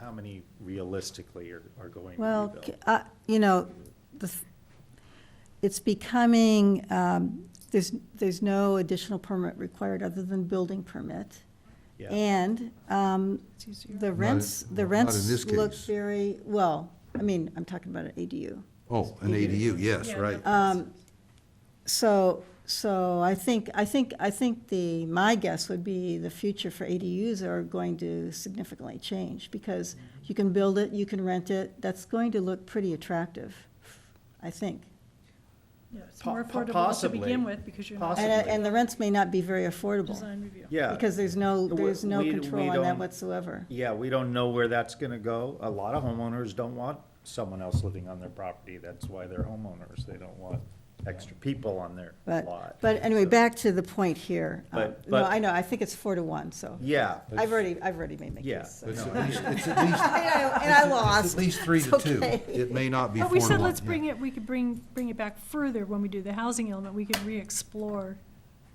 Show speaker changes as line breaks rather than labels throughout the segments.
how many realistically are, are going to be
Well,
built?
c- uh, you know, the th- it's becoming, um, there's, there's no additional permit required other than building permit.
Yeah.
And um, the rents,
in-
the
not in
rents
this
look
case.
very, well, I mean, I'm talking about an ADU.
Oh, an ADU, yes, right.
Uh, Um,
So, so I think, I think, I think the, my guess would be the future for ADUs are going to significantly change because you can build it, you can rent it, that's going to look pretty attractive, I think.
Yeah, it's
Po-
more
po-
affordable to begin
possibly.
with because you're
Possi-
not
And,
Possibly.
and the rents may not be very affordable,
design review.
Yeah.
because there's no,
We-
there's no
we- we
control on that
don't-
whatsoever.
Yeah, we don't know where that's gonna go. A lot of homeowners don't want someone else living on their property. That's why they're homeowners. They don't want extra people on their lot.
But, but anyway,
So-
back to the point here. Um,
But-
No,
but-
I know, I think it's four to one, so.
Yeah,
I've already, I've already made my
Yeah.
case. so.
It's
And
at least, it's at least,
I and I
it's
lost.
at least three to
It's
two.
okay.
It may not be four
But
to one.
we said, let's bring
yeah.
it, we could bring, bring it back further when we do the housing element. We could re-explore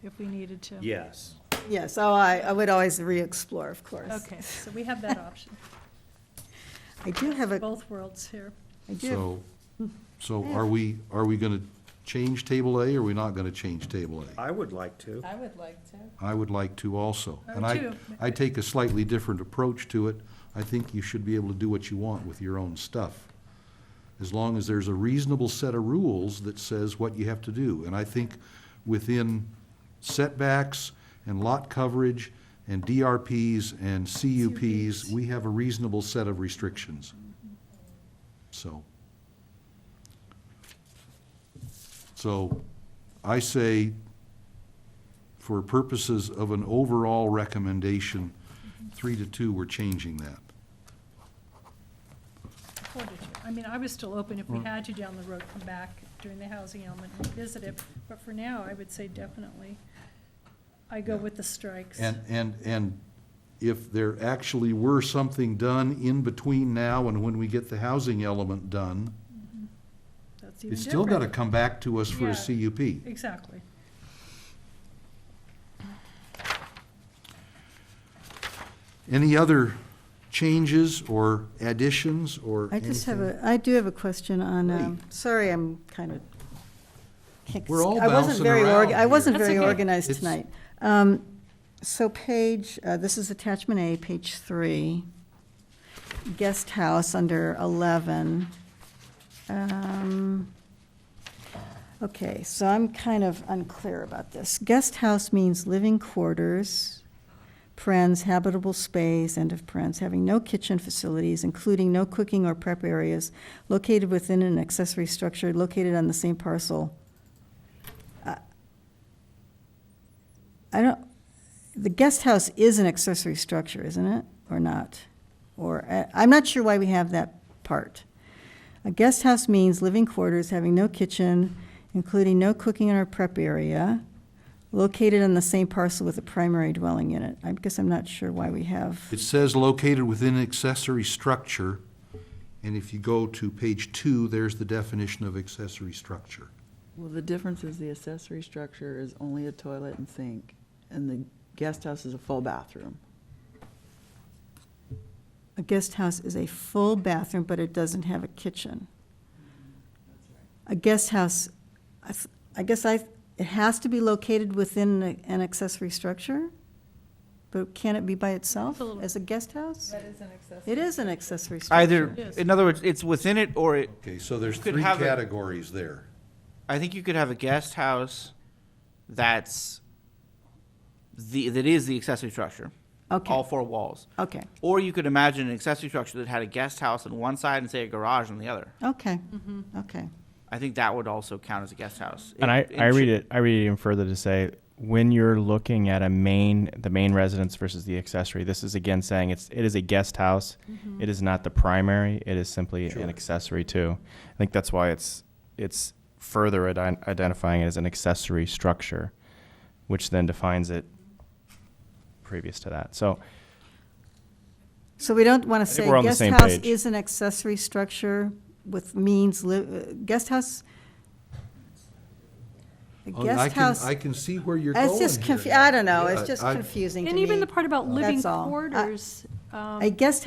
if we needed to.
yes.
Yes, oh, I, I would always re-explore, of course.
Okay, so we have that option,
I do have a,
both worlds here.
I do, have-
So, so are we, are we gonna change table A, or are we not gonna change table A?
I would like to.
I would like to.
I would like to also.
I
And
would
I,
too.
I take a slightly different approach to it. I think you should be able to do what you want with your own stuff, as long as there's a reasonable set of rules that says what you have to do. And I think within setbacks and lot coverage and DRPs and CUPs, we have a reasonable set of restrictions. So. So I say for purposes of an overall recommendation, three to two, we're changing that.
Four to two. I mean, I was still open if we
Mm.
had to down the road, come back during the housing element, revisit it. But for now, I would say definitely, I go with the strikes.
And, and, and if there actually were something done in between now and when we get the housing element done,
That's even
it's still gotta
different.
come back to us for
Yeah.
a CUP.
Exactly.
Any other changes or additions or
I just have
anything?
a, I do have a question on, um, sorry, I'm kind of. can't-
We're all
I wasn't
bouncing
very org-
around
I wasn't
here.
very
That's okay.
organized
It's-
tonight. Um, So page, uh, this is attachment A, page three, guest house under eleven. Um, Okay, so I'm kind of unclear about this. Guest house means living quarters, parens, habitable space, end of parens, having no kitchen facilities, including no cooking or prep areas, located within an accessory structure located on the same parcel. I- I don't, the guest house is an accessory structure, isn't it, or not? Or, I- I'm not sure why we have that part. A guest house means living quarters having no kitchen, including no cooking or prep area, located on the same parcel with a primary dwelling unit. I guess I'm not sure why we have,
It says located within an accessory structure, and if you go to page two, there's the definition of accessory structure.
Well, the difference is the accessory structure is only a toilet and sink, and the guest house is a full bathroom.
a guest house is a full bathroom, but it doesn't have a kitchen. A guest house, I th- I guess I, it has to be located within a- an accessory structure? But can it be by itself
It's a little-
as a guest house?
is an accessory.
It is an accessory structure.
Either,
Yes.
in other words, it's within it or it,
Okay, so there's
Could
three
have a-
categories there.
I think you could have a guest house that's the, that is the accessory structure.
Okay.
All four walls.
Okay,
Or you could imagine an accessory structure that had a guest house on one side and say a garage on the other.
okay, okay.
I think that would also count as a guest house.
And I, I read it I read it even further to say when you're looking at a main the main residence versus the accessory, this is again saying it's it is a guest house. It is not the primary. It is simply
Sure.
an accessory too. I think that's why it's it's further ident- identifying it as an accessory structure, which then defines it previous to that. So
So we don't want to say
we're on the
guest
same
house
page.
is an accessory structure with means, li- uh, guest house? A
Oh, I
guest
can-
house,
I can see where you're going
it's just
here
confu,
now.
I don't know,
Yeah,
it's just
I-
confusing to
And even
me.
the part about living
That's all. I-
quarters. um,
A guest